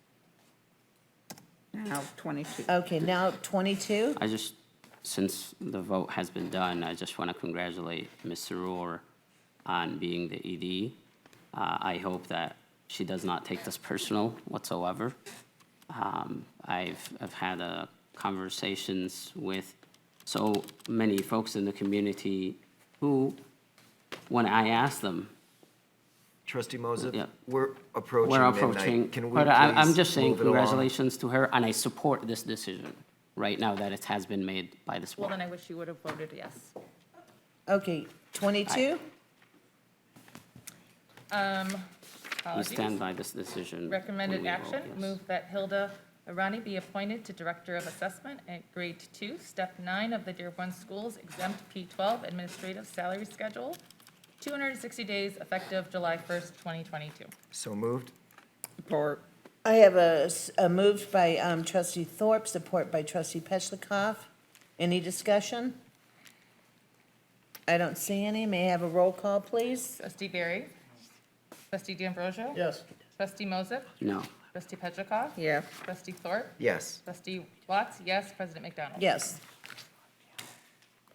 now 22. Okay, now 22? I just, since the vote has been done, I just want to congratulate Ms. Rohr on being the ED. Uh, I hope that she does not take this personal whatsoever. Um, I've, I've had uh, conversations with so many folks in the community who, when I ask them, Trustee Moses, Yeah. we're approaching we're midnight. approaching. Can we But I- I'm please just saying move it along? congratulations to her, and I support this decision right now that it has been made by this Well, then board. I wish you would have voted yes. Okay, 22? We Um, Apologies. stand by this decision. when Uh, Recommended we vote action, yes. move that Hilda Arani be appointed to Director of Assessment at Grade 2, Step 9 of the Dearborn Schools exempt P-12 administrative salary schedule, 260 days effective July 1st, 2022. So moved. Support. I have a, s- a move by um, trustee Thorpe, support by trustee Petlicoff. Any discussion? I don't see any. May I have a roll call, please? Trustee Barry? Trustee D'Ambrosio? Yes. Trustee Moses? No, Trustee Petrichoff? Yes. Trustee Thorpe? Yes. Trustee Watts? Yes. President McDonald? Yes.